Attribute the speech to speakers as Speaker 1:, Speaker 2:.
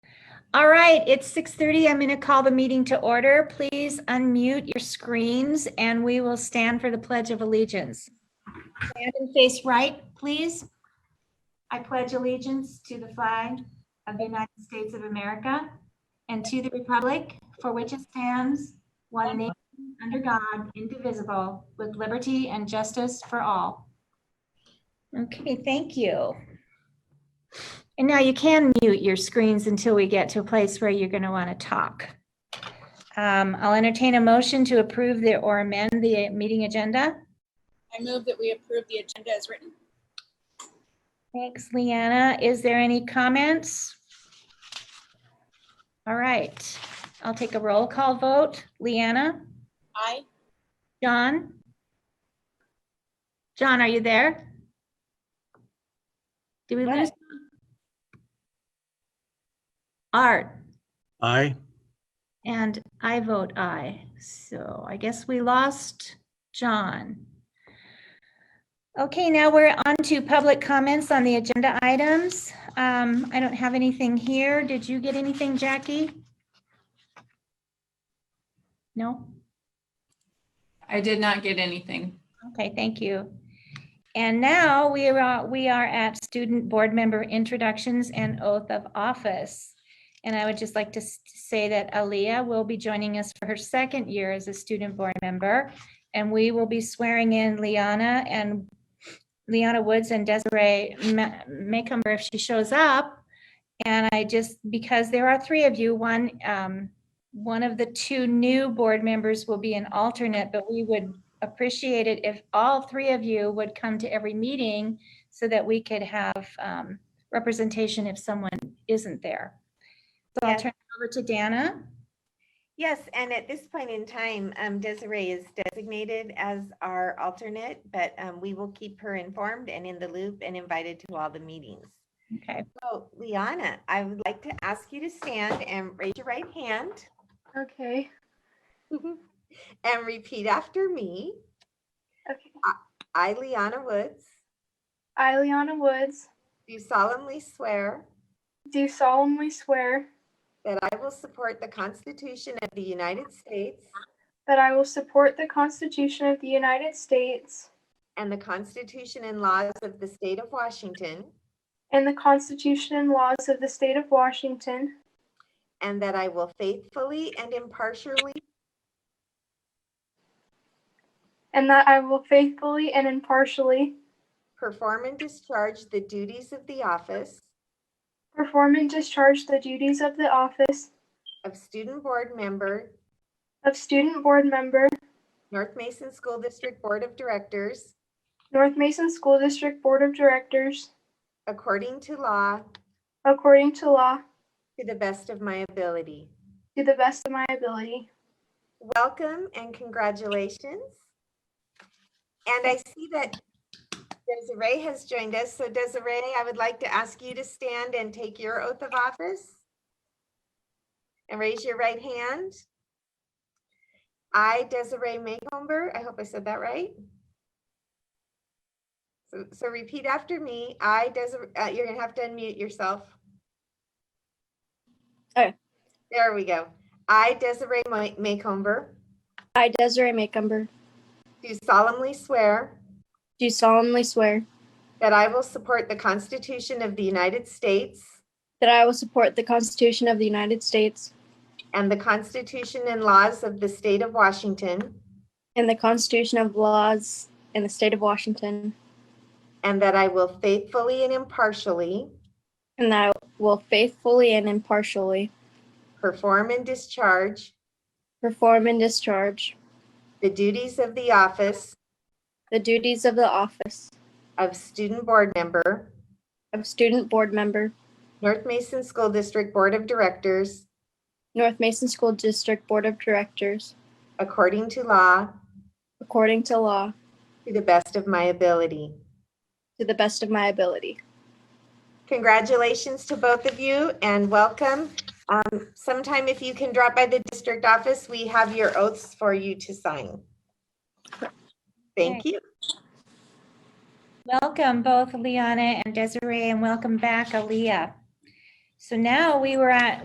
Speaker 1: All right, it's 6:30. I'm going to call the meeting to order. Please unmute your screens and we will stand for the Pledge of Allegiance. Stand and face right, please. I pledge allegiance to the flag of the United States of America and to the republic for which it stands, one nation, under God, indivisible, with liberty and justice for all. Okay, thank you. And now you can mute your screens until we get to a place where you're going to want to talk. Um, I'll entertain a motion to approve the, or amend the uh, meeting agenda.
Speaker 2: I move that we approve the agenda as written.
Speaker 1: Thanks, Leanna. Is there any comments? All right, I'll take a roll call vote. Leanna?
Speaker 2: Aye.
Speaker 1: John? John, are you there? Do we lose? Art?
Speaker 3: Aye.
Speaker 1: And I vote aye. So I guess we lost John. Okay, now we're on to public comments on the agenda items. Um, I don't have anything here. Did you get anything, Jackie? No?
Speaker 4: I did not get anything.
Speaker 1: Okay, thank you. And now we are, we are at student board member introductions and oath of office. And I would just like to s- say that Aaliyah will be joining us for her second year as a student board member. And we will be swearing in Liana and Liana Woods and Desiree Ma- Maycomber if she shows up. And I just, because there are three of you, one, um, one of the two new board members will be an alternate, but we would appreciate it if all three of you would come to every meeting so that we could have um, representation if someone isn't there. So I'll
Speaker 5: Yes.
Speaker 1: turn it over to Dana.
Speaker 5: Yes, and at this point in time, um, Desiree is designated as our alternate, but um, we will keep her informed and in the loop and invited to all the meetings.
Speaker 1: Okay,
Speaker 5: So Liana, I would like to ask you to stand and raise your right hand
Speaker 6: Okay.
Speaker 5: and repeat after me.
Speaker 6: Okay.
Speaker 5: I, Liana Woods,
Speaker 6: I, Liana Woods,
Speaker 5: do solemnly swear
Speaker 6: do solemnly swear
Speaker 5: that I will support the Constitution of the United States
Speaker 6: that I will support the Constitution of the United States
Speaker 5: and the Constitution and laws of the state of Washington,
Speaker 6: and the Constitution and laws of the State of Washington,
Speaker 5: and that I will faithfully and impartially
Speaker 6: and that I will faithfully and impartially
Speaker 5: Perform and discharge the duties of the office
Speaker 6: perform and discharge the duties of the office
Speaker 5: of Student Board Member,
Speaker 6: of Student Board Member,
Speaker 5: North Mason School District Board of Directors,
Speaker 6: North Mason School District Board of Directors,
Speaker 5: according to law,
Speaker 6: according to law,
Speaker 5: to the best of my ability.
Speaker 6: to the best of my ability.
Speaker 5: Welcome and congratulations. And I see that Desiree has joined us. So Desiree, I would like to ask you to stand and take your oath of office. And raise your right hand. I, Desiree Maycomber, I hope I said that right. So, so repeat after me. I, Desiree, uh, you're gonna have to unmute yourself.
Speaker 2: Oh.
Speaker 5: There we go. I, Desiree Ma- Maycomber,
Speaker 2: I, Desiree Macumber,
Speaker 5: do solemnly swear
Speaker 2: do solemnly swear
Speaker 5: that I will support the Constitution of the United States
Speaker 2: that I will support the Constitution of the United States
Speaker 5: and the Constitution and laws of the State of Washington,
Speaker 2: and the Constitution of laws in the state of Washington,
Speaker 5: and that I will faithfully and impartially
Speaker 2: and that I will faithfully and impartially
Speaker 5: perform and discharge
Speaker 2: perform and discharge
Speaker 5: the duties of the office
Speaker 2: the duties of the office
Speaker 5: of Student Board Member,
Speaker 2: of Student Board Member,
Speaker 5: North Mason School District Board of Directors,
Speaker 2: North Mason School District Board of Directors,
Speaker 5: according to law,
Speaker 2: according to law,
Speaker 5: to the best of my ability.
Speaker 2: to the best of my ability.
Speaker 5: Congratulations to both of you and welcome. Um, Sometime if you can drop by the district office, we have your oaths for you to sign. Thank you.
Speaker 1: welcome both Liana and Desiree and welcome back Aaliyah. So now we were at,